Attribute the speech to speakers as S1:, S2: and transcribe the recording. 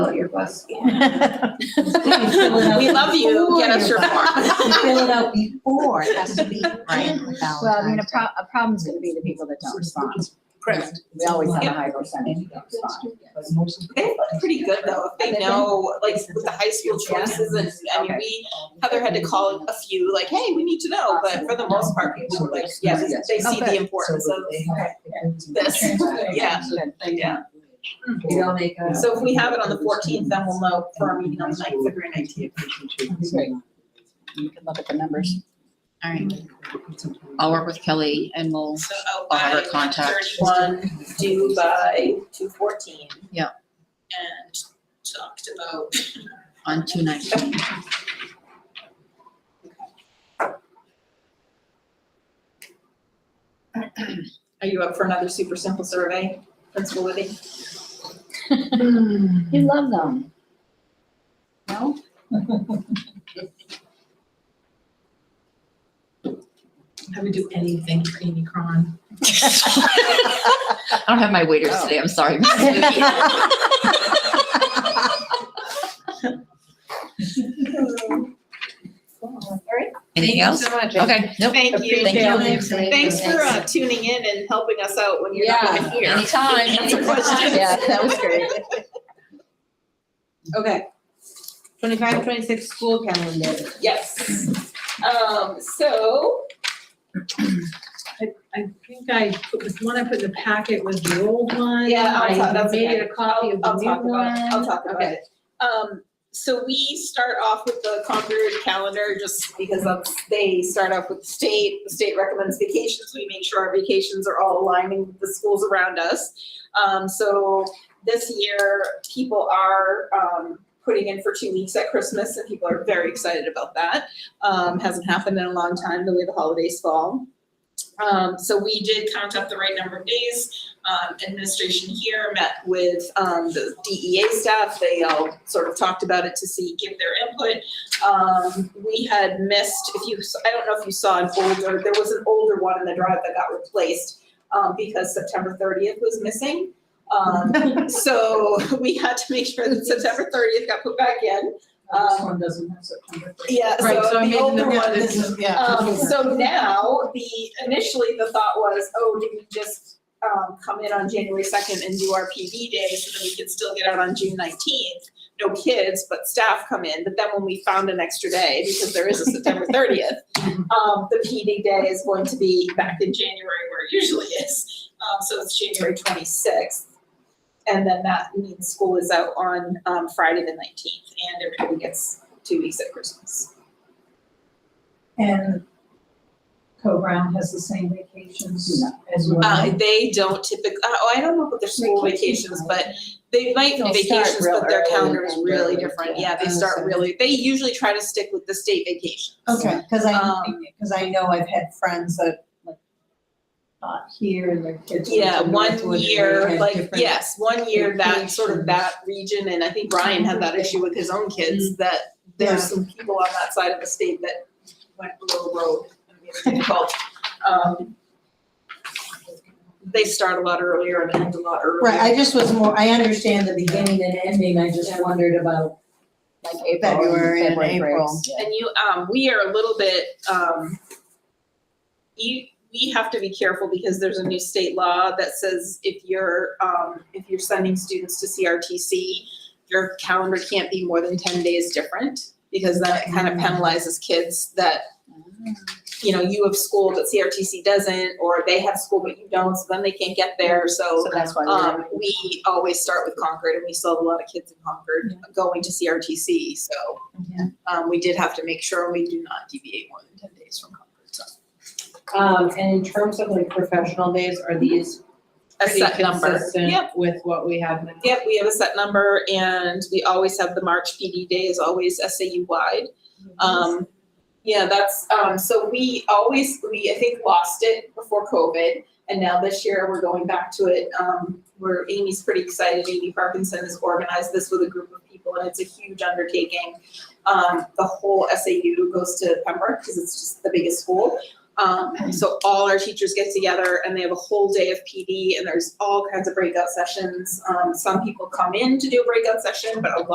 S1: out your bus form.
S2: Right.
S3: We love you, get us your form.
S4: You fill it out before, it has to be on
S2: Well, I mean, a
S4: Valentine's.
S2: pro, a problem's gonna be the people that don't respond.
S3: Correct.
S2: We always have a high percentage that don't respond.
S3: They look pretty good though, if they know, like with the high school choices and, I mean, we, Heather had to call a few, like, hey, we need to know, but for the most part, people were like, yeah, they they see the importance of this, yeah, yeah.
S1: We all make
S5: uh,
S1: a.
S3: So if we have it on the fourteenth, then we'll know for our meeting on the ninth, February nineteenth.
S2: You can look at the numbers.
S6: All right, I'll work with Kelly and we'll,
S3: So oh,
S6: I'll have her contact.
S3: Thirty-one due by two fourteen.
S6: Yeah.
S3: And talked about.
S6: on two nights.
S3: Are you up for another super simple survey, Principal Libby?
S2: You love them. No?
S5: I would do anything for Amy Cron.
S6: I don't have my waiters today, I'm sorry. Miss Vicky. Anything else?
S3: Thank you so much.
S6: Okay, nope.
S3: Thank you.
S6: Thank you.
S3: Thanks for uh, tuning in and helping us out when you're not even here.
S6: Anytime.
S3: Answer questions.
S2: Yeah, that was great.
S4: Okay. Twenty-five, twenty-six school calendar.
S3: Yes. Um, so,
S5: I think I, put the one I put in the packet was the old one.
S3: yeah, I'll talk,
S5: I
S3: that's okay.
S5: made it a copy of the
S3: I'll-
S5: new
S3: I'll talk about it. I'll
S5: one.
S3: talk about
S5: Okay.
S3: it. Um, so we start off with the Concord calendar, just because that's, they start off with the state, the state recommends vacations, we make sure our vacations are all aligning with the schools around us. Um, so this year, people are, um, putting in for two weeks at Christmas, and people are very excited about that. Um, hasn't happened in a long time, the way the holidays fall. Um, so we did count up the right number of days, um, administration here met with, um, the DEA staff. They all sort of talked about it to see, give their input. Um, we had missed, if you, I don't know if you saw an older, there was an older one in the drive that got replaced, um, because September thirtieth was missing. Um, so we had to make sure that September thirtieth got put back in. Um,
S1: one doesn't have September.
S3: yeah,
S5: Right, so
S3: so
S5: I made
S3: the
S5: the
S3: older
S5: note
S3: one
S5: that
S3: is um, so now, the, initially, the thought was, oh, do we just, um, come in on January second and do our PV day so that we could still get out on June nineteenth? No kids, but staff come in, but then when we found an extra day, because there is a September thirtieth, um, the PD day is going to be back in January where it usually is, um, so it's January twenty-sixth. And then that means school is out on, um, Friday the nineteenth, and everybody gets two weeks at Christmas.
S1: And Co-Brown has the same vacations as
S3: Uh,
S1: well.
S3: they don't typically, oh, I don't know about their school vacations, but they might
S2: They'll start
S3: vacations,
S2: real
S3: but their
S2: early
S3: calendar is
S2: and
S3: really
S2: early,
S3: different.
S2: yeah.
S3: Yeah, they
S4: Oh,
S3: start
S4: so-
S3: really, they usually try to stick with the state vacations.
S4: Okay, cause I,
S3: Um,
S4: cause I know I've had friends that like not here and their kids. went to
S3: Yeah, one
S4: Northwood and they
S3: year,
S4: had
S3: like,
S4: different-
S3: yes, one year that, sort of that region, and I think Ryan had that issue with his own kids, that
S4: Yeah.
S3: there's some people on that side of the state that went below road. and made it difficult. Um, They start a lot earlier and end a lot earlier.
S4: Right, I just was more, I understand the beginning and ending, I just
S3: Yeah.
S4: wondered about
S2: Like April.
S4: February and
S2: February
S4: April.
S2: breaks. Yeah.
S3: And you, um, we are a little bit, um, you, we have to be careful because there's a new state law that says if you're, um, if you're sending students to CRTC, your calendar can't be more than ten days different, because then it kind of penalizes kids that, you know, you have school, but CRTC doesn't, or they have school, but you don't, so then they can't get there,
S2: So that's why we're.
S3: um, we always start with Concord, and we still have a lot of kids in Concord going to CRTC, so. Um, we did have to make sure we do not deviate more than ten days from Concord, so.
S7: Um, and in terms of like professional days, are these
S3: A
S7: pretty
S3: set number, yep,
S7: consistent with what we have now?
S3: yep, we have a set number, and we always have the March PD day is always SAU wide. Um, yeah, that's, um, so we always, we, I think, lost it before COVID, and now this year we're going back to it. Um, where Amy's pretty excited, Amy Parkinson has organized this with a group of people, and it's a huge undertaking. Um, the whole SAU goes to Pembroke, because it's just the biggest school. Um, so all our teachers get together and they have a whole day of PD and there's all kinds of breakout sessions. Um, some people come in to do a breakout session, but a lot